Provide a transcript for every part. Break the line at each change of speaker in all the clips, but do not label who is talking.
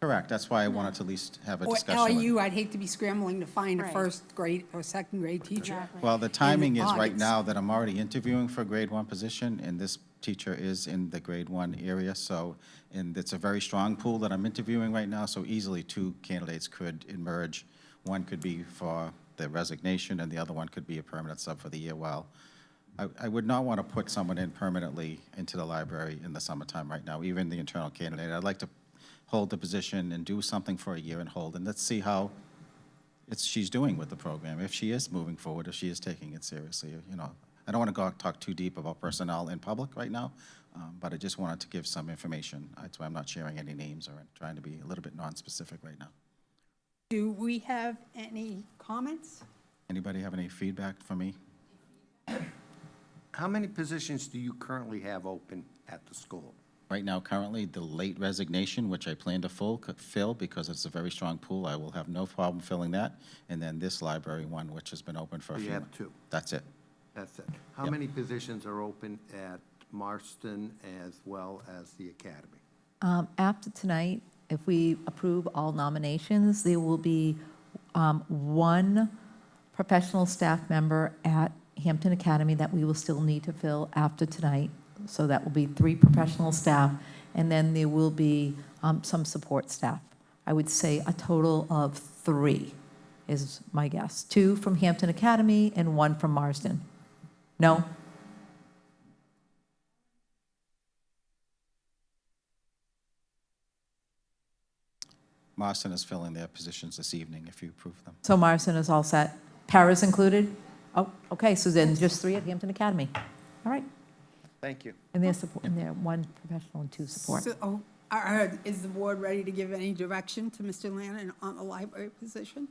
Correct, that's why I wanted to at least have a
Or
discussion. with-
LU, I'd hate to be scrambling to find a
Right.
first grade or second grade teacher.
Exactly.
Well, the timing is right
August.
now that I'm already interviewing for a grade one position, and this teacher is in the grade one area, so, and it's a very strong pool that I'm interviewing right now, so easily two candidates could emerge. One could be for the resignation, and the other one could be a permanent sub for the year. Well, I, I would not want to put someone in permanently into the library in the summertime right now, even the internal candidate. I'd like to hold the position and do something for a year and hold, and let's see how it's, she's doing with the program, if she is moving forward, if she is taking it seriously, you know. I don't want to go out, talk too deep about personnel in public right now, um, but I just wanted to give some information. That's why I'm not sharing any names or trying to be a little bit non-specific right now.
Do we have any comments?
Anybody have any feedback for me?
How many positions do you currently have open at the school?
Right now, currently, the late resignation, which I plan to full, fill because it's a very strong pool, I will have no problem filling that. And then this library one, which has been open for a
You
few
have
months.
two.
That's it.
That's it. How many positions are open at Marston as well as the academy?
Um, After tonight, if we approve all nominations, there will be um, one professional staff member at Hampton Academy that we will still need to fill after tonight. So that will be three professional staff, and then there will be um, some support staff. I would say a total of three is my guess. Two from Hampton Academy and one from Marsden. No?
Marston is filling their positions this evening if you approve them.
So Morrison is all set. Paris included? Oh, okay, so then just three at Hampton Academy. All right.
Thank you.
And they're support, and they're one professional and two support.
So, oh, are- are- Is the board ready to give any direction to Mr. Lannan on the library position?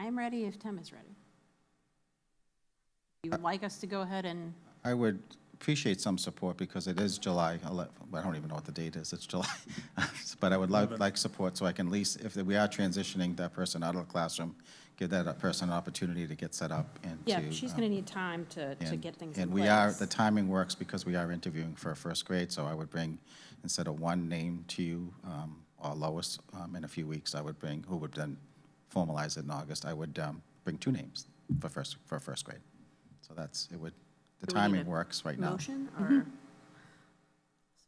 I'm ready if Tim is ready.
Uh,
You would like us to go ahead and,
I would appreciate some support because it is July 11, I don't even know what the date is, it's July. But I would like, like support so I can at least, if we are transitioning that person out of the classroom, give that person an opportunity to get set up and to. uh,
yeah, she's going to need time to, to
and-
get things in
And
place.
we are, the timing works because we are interviewing for first grade, so I would bring, instead of one name to you, um, or Lois, um, in a few weeks, I would bring, who would then formalize it in August, I would um, bring two names for first, for first grade. So that's, it would, the
Do we need
timing
a
works right now.
Motion or? Mm-hmm.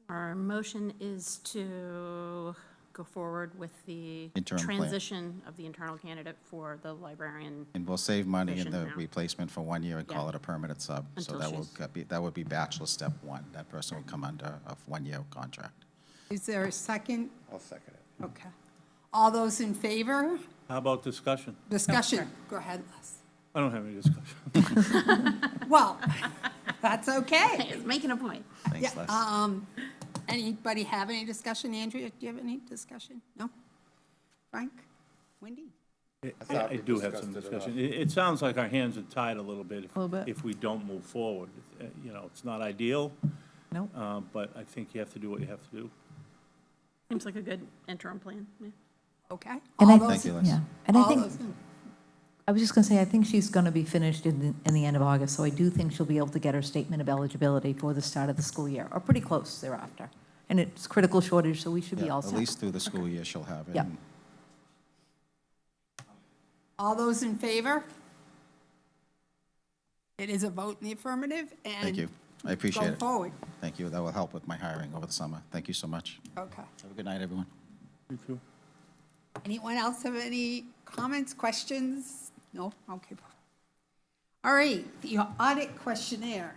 Our motion is to go forward with the
Interim plan.
transition of the internal candidate for the librarian.
And we'll save money in
Efficient
the
now.
replacement for one year and call
Yeah.
it a permanent sub. So
Until
that will
she's-
get be, that would be bachelor step one. That person would come under a one-year contract.
Is there a second?
I'll second it.
Okay. All those in favor?
How about discussion?
Discussion. Go ahead, Les.
I don't have any discussion.
Well, that's okay.
It's making a point.
Thanks,
Yeah,
Les.
um, Anybody have any discussion? Andrea, do you have any discussion? No? Frank? Wendy?
I
thought we
I do have
discussed
some
it
discussion. It, it sounds like our hands are tied a little bit. if-
Little bit.
If we don't move forward, Uh, you know, it's not ideal,
No?
uh, but I think you have to do what you have to do.
Seems like a good interim plan. yeah.
Okay.
And I
All
think-
those.
Thank you, Les.
Yeah, and I
all
think,
those in-
I was just going to say, I think she's going to be finished in, the- in the end of August, so I do think she'll be able to get her statement of eligibility for the start of the school year, or pretty close thereafter. And it's critical shortage, so we should be
Yeah,
all
At
set.
least through the school year she'll have it.
Yeah.
and-
All those in favor? It is a vote in the affirmative and.
Thank you. I appreciate
Go
it.
forward.
Thank you. That will help with my hiring over the summer. Thank you so much.
Okay.
Have a good night, everyone.
You too?
Anyone else have any comments, questions? No? Okay. All right, the audit questionnaire.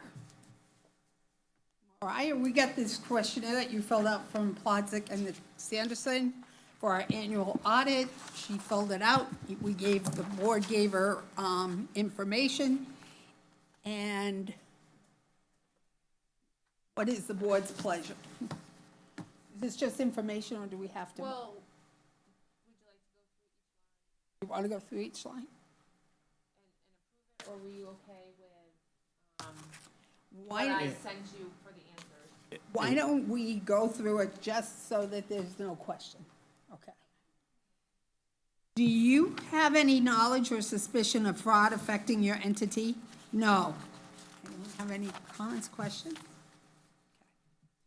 All right, we got this questionnaire that you filled out from Plodzik and Sanderson for our annual audit. She filled it out. We gave, the board gave her um, information. And what is the board's pleasure? Is this just information or do we have to?
Well,
You want to go through each line?
or were you okay with um, what I
Why,
sent you for the answers?
why don't we go through it just so that there's no question? Okay. Do you have any knowledge or suspicion of fraud affecting your entity? No. Anyone have any comments, questions?